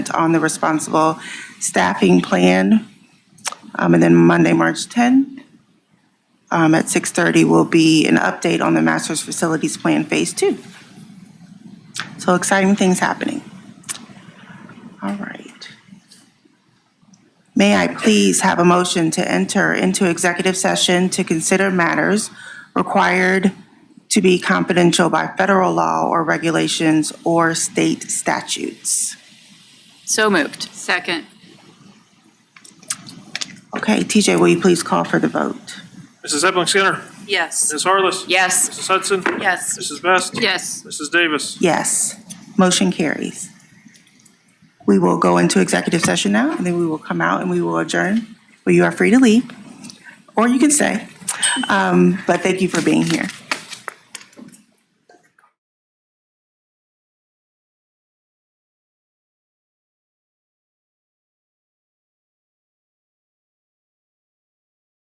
on the responsible staffing plan. Um, And then Monday, March 10, um, at 6:30 will be an update on the master's facilities plan phase two. So exciting things happening. All right. May I please have a motion to enter into executive session to consider matters required to be confidential by federal law or regulations or state statutes? So moved. Second. Okay, TJ, will you please call for the vote? Mrs. Epling Skinner. Yes. Ms. Harless. Yes. Mrs. Hudson. Yes. Mrs. Best. Yes. Mrs. Davis. Yes, motion carries. We will go into executive session now, and then we will come out and we will adjourn. Well, you are free to leave, or you can stay. Um, But thank you for being here.